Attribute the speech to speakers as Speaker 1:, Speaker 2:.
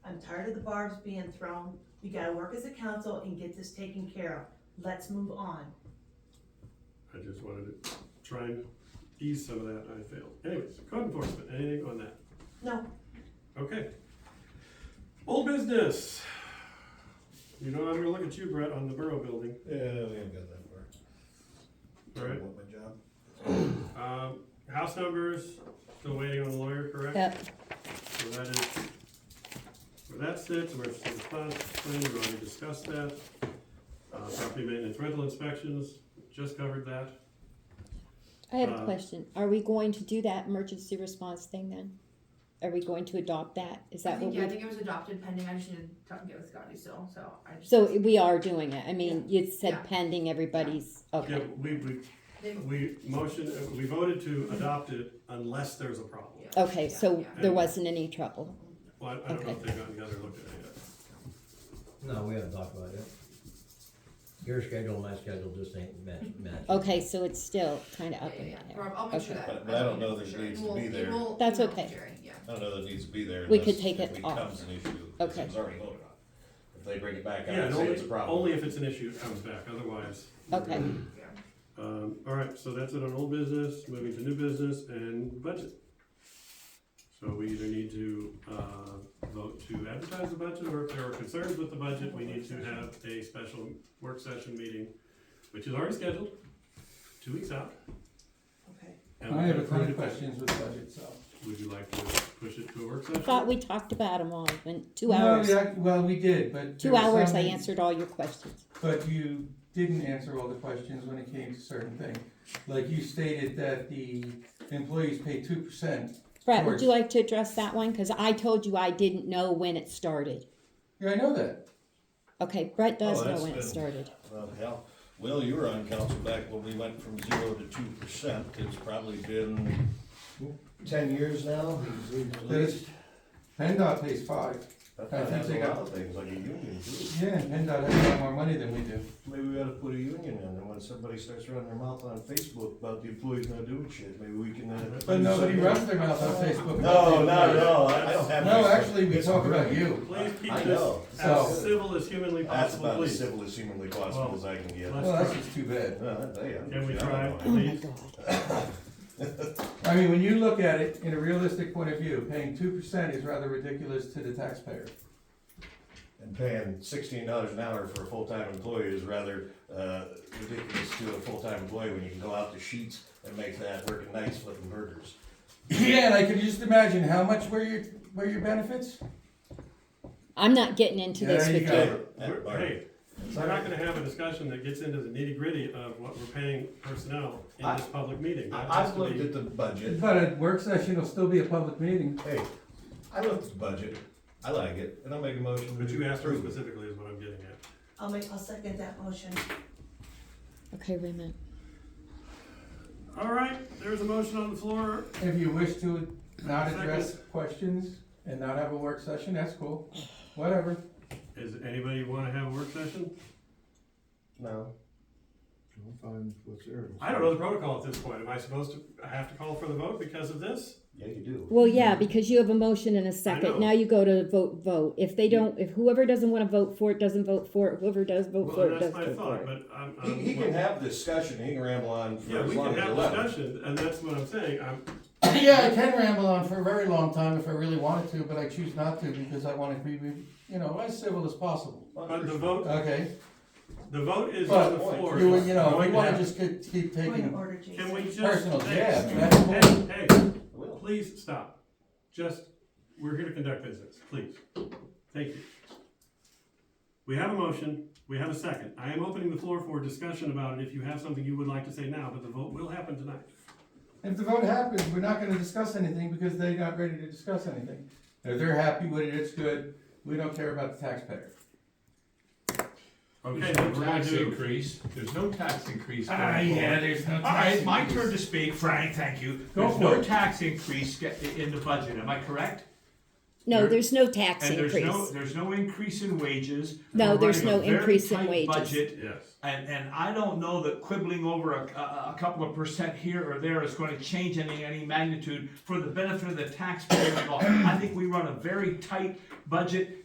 Speaker 1: tired of the barbs being thrown. We gotta work as a council and get this taken care of. Let's move on.
Speaker 2: I just wanted to try and ease some of that, and I failed. Anyways, code enforcement, anything on that?
Speaker 1: No,
Speaker 2: Okay. Old business. You know, I'm gonna look at you, Brett, on the borough building,
Speaker 3: Yeah, we haven't got that far.
Speaker 2: all right?
Speaker 3: Want my job?
Speaker 2: Um, house numbers, still waiting on the lawyer, correct?
Speaker 4: Yep,
Speaker 2: So that is, where that sits, where it's in the response plan, we already discussed that. Uh, property maintenance rental inspections, just covered that.
Speaker 4: I have
Speaker 2: Uh,
Speaker 4: a question. Are we going to do that emergency response thing then? Are we going to adopt that? Is
Speaker 5: I
Speaker 4: that what
Speaker 5: think, yeah, I
Speaker 4: we,
Speaker 5: think it was adopted pending, I just need to talk and get with Scotty still, so I just.
Speaker 4: so we are doing it? I mean, you said
Speaker 5: Yeah.
Speaker 4: pending everybody's,
Speaker 2: Yeah,
Speaker 4: okay,
Speaker 2: we, we,
Speaker 5: Then-
Speaker 2: we motioned, uh, we voted to adopt it unless there's a problem.
Speaker 5: yeah,
Speaker 4: okay,
Speaker 5: yeah,
Speaker 4: so
Speaker 5: yeah.
Speaker 4: there wasn't any trouble.
Speaker 2: Well, I- I don't know if they've gotten together and looked at it yet.
Speaker 6: No, we haven't talked about it. Your schedule and my schedule just ain't match, match.
Speaker 4: Okay, so it's still kinda
Speaker 5: Yeah,
Speaker 4: up
Speaker 5: yeah,
Speaker 4: in the
Speaker 5: yeah.
Speaker 4: air.
Speaker 5: Rob, I'll make sure
Speaker 4: Okay.
Speaker 5: that.
Speaker 3: But- but I don't know
Speaker 5: for
Speaker 3: that it
Speaker 5: sure.
Speaker 3: needs to
Speaker 5: We'll-
Speaker 3: be there.
Speaker 5: we'll
Speaker 4: That's
Speaker 5: email
Speaker 4: okay.
Speaker 5: Jerry, yeah.
Speaker 3: I don't know that it needs to be there.
Speaker 4: We could
Speaker 3: unless
Speaker 4: take it off.
Speaker 3: Becomes an issue, because
Speaker 4: Okay.
Speaker 3: it was already voted on. If they bring it back out
Speaker 2: Yeah,
Speaker 3: and
Speaker 2: and
Speaker 3: say it's a
Speaker 2: only,
Speaker 3: problem.
Speaker 2: only if it's an issue, it comes back, otherwise. we're
Speaker 4: Okay.
Speaker 2: good.
Speaker 5: Yeah.
Speaker 2: Um, all right, so that's it on old business, moving to new business and budget. So we either need to, uh, vote to advertise the budget, or if there are concerns with the budget, we need to have a special work session meeting, which is already scheduled, two weeks out.
Speaker 1: okay.
Speaker 2: And
Speaker 7: I have a
Speaker 2: we've
Speaker 7: ton
Speaker 2: approved
Speaker 7: of
Speaker 2: it.
Speaker 7: questions with budget, so.
Speaker 2: Would you like to push it to a work
Speaker 4: I
Speaker 2: session?
Speaker 4: Thought we talked about them all in two
Speaker 7: No,
Speaker 4: hours.
Speaker 7: we act- Well, we did, but. there
Speaker 4: Two
Speaker 7: were
Speaker 4: hours
Speaker 7: some-
Speaker 4: I answered all your questions.
Speaker 7: But you didn't answer all the questions when it came to certain things. Like you stated that the employees pay two percent.
Speaker 4: Brett, would
Speaker 7: George.
Speaker 4: you like to address that one? Cause I told you I didn't know when it started.
Speaker 7: Yeah, I know that.
Speaker 4: Okay, Brett does
Speaker 3: Oh,
Speaker 4: know
Speaker 3: that's
Speaker 4: when it
Speaker 3: good.
Speaker 4: started.
Speaker 3: Well, hell, Will, you were on council back when we went from zero to two percent. It's probably been ten years now, at least.
Speaker 7: PennDOT pays five.
Speaker 3: That
Speaker 7: I think
Speaker 3: has
Speaker 7: they
Speaker 3: a
Speaker 7: got-
Speaker 3: lot of things, like a union too.
Speaker 7: Yeah, and PennDOT has a lot more money than we do.
Speaker 3: Maybe we ought to put a union in, and when somebody starts running their mouth on Facebook about the employees not doing shit, maybe we can. uh,
Speaker 7: But nobody runs their mouth on Facebook. about
Speaker 3: No,
Speaker 7: the
Speaker 3: no,
Speaker 7: employees.
Speaker 3: no, I don't have.
Speaker 7: No,
Speaker 3: Facebook.
Speaker 7: actually, we
Speaker 3: It's
Speaker 7: talk about
Speaker 3: brilliant.
Speaker 7: you.
Speaker 2: Please keep
Speaker 3: I
Speaker 2: this
Speaker 3: know.
Speaker 2: as
Speaker 7: So-
Speaker 2: civil as humanly
Speaker 3: That's
Speaker 2: possible,
Speaker 3: about as
Speaker 2: please.
Speaker 3: civil as humanly possible as I can get.
Speaker 2: Well,
Speaker 7: Well, that's just too bad.
Speaker 3: Uh, I tell ya,
Speaker 2: Can we
Speaker 3: I don't
Speaker 2: try?
Speaker 4: Oh
Speaker 3: know.
Speaker 4: my
Speaker 2: Please.
Speaker 4: god.
Speaker 7: I mean, when you look at it in a realistic point of view, paying two percent is rather ridiculous to the taxpayer.
Speaker 3: And paying sixteen dollars an hour for a full-time employee is rather, uh, ridiculous to a full-time employee when you can go out to sheets and make that working nights flipping burgers.
Speaker 7: Yeah, and I could just imagine how much were your, were your benefits?
Speaker 4: I'm not getting into this
Speaker 7: There you
Speaker 4: with
Speaker 7: go.
Speaker 4: you.
Speaker 3: Hey,
Speaker 2: We're- Hey, we're not gonna have a discussion that gets into the nitty gritty of what we're paying personnel in this public meeting. That
Speaker 3: I-
Speaker 2: has
Speaker 3: I've
Speaker 2: to
Speaker 3: looked
Speaker 2: be-
Speaker 3: at the budget,
Speaker 7: But a work session will still be a public meeting.
Speaker 3: hey, I looked at the budget, I like it, and I'll make a motion.
Speaker 2: But
Speaker 3: to
Speaker 2: you asked her
Speaker 3: approve it.
Speaker 2: specifically is what I'm getting at.
Speaker 1: I'll make, I'll second that motion.
Speaker 4: Okay, wait a minute.
Speaker 2: All right, there's a motion on the floor.
Speaker 7: If you wish to not address questions and not have a work session, that's cool, whatever.
Speaker 2: Is anybody wanna have a work session?
Speaker 3: No,
Speaker 8: I'll find what's there.
Speaker 2: I don't know the protocol at this point. Am I supposed to, I have to call for the vote because of this?
Speaker 3: yeah, you do.
Speaker 4: Well, yeah, because you have a motion and a
Speaker 2: Hmm. know.
Speaker 4: second. Now you go to vote, vote. If they don't, if whoever doesn't want to vote for it, doesn't vote for it. Whoever does vote
Speaker 2: Well,
Speaker 4: for it, does
Speaker 2: that's my
Speaker 4: vote for
Speaker 2: thought,
Speaker 4: it.
Speaker 2: but I'm,
Speaker 3: He,
Speaker 2: I'm.
Speaker 3: he can have discussion, he can ramble on for
Speaker 2: Yeah,
Speaker 3: as
Speaker 2: we
Speaker 3: long
Speaker 2: can
Speaker 3: as you
Speaker 2: have
Speaker 3: like.
Speaker 2: discussion, and that's what I'm saying. I'm,
Speaker 7: Yeah, I can ramble on for a very long time if I really wanted to, but I choose not to because I wanna be, be- you know, as civil as possible.
Speaker 2: but the vote,
Speaker 7: Okay,
Speaker 2: the vote is on
Speaker 7: But
Speaker 2: the floor.
Speaker 7: you,
Speaker 2: It's
Speaker 7: you know,
Speaker 2: going
Speaker 7: if you
Speaker 2: to
Speaker 7: wanna
Speaker 2: happen.
Speaker 7: just get- keep
Speaker 1: Point of
Speaker 7: taking
Speaker 1: order, Jason.
Speaker 2: Can we just?
Speaker 7: personal
Speaker 2: hey,
Speaker 7: jabs, that's bull-
Speaker 2: Hey, hey.
Speaker 3: Well,
Speaker 2: Please stop. Just, we're here to conduct business, please. Thank you. We have a motion, we have a second. I am opening the floor for discussion about it if you have something you would like to say now, but the vote will happen tonight.
Speaker 7: If the vote happens, we're not gonna discuss anything because they're not ready to discuss anything. If they're happy with it, it's good, we don't care about the taxpayer.
Speaker 2: Okay,
Speaker 9: There's
Speaker 2: then
Speaker 9: no
Speaker 2: we're gonna
Speaker 9: tax
Speaker 2: do,
Speaker 9: increase, there's no tax increase going
Speaker 7: Ah, yeah,
Speaker 9: forward.
Speaker 7: there's no.
Speaker 9: All right, my turn to speak, Frank, thank you.
Speaker 7: Go
Speaker 9: There's
Speaker 7: for
Speaker 9: no
Speaker 7: it.
Speaker 9: tax increase ge- in the budget, am I correct?
Speaker 4: No,
Speaker 9: You're-
Speaker 4: there's no tax
Speaker 9: And there's no,
Speaker 4: increase.
Speaker 9: there's no increase in wages.
Speaker 4: No,
Speaker 9: We're
Speaker 4: there's
Speaker 9: running a
Speaker 4: no
Speaker 9: very
Speaker 4: increase in
Speaker 9: tight
Speaker 4: wages.
Speaker 9: Budget,
Speaker 2: yes.
Speaker 9: and, and I don't know that quibbling over a, a, a couple of percent here or there is gonna change any, any magnitude for the benefit of the taxpayer at all. I think we run a very tight budget,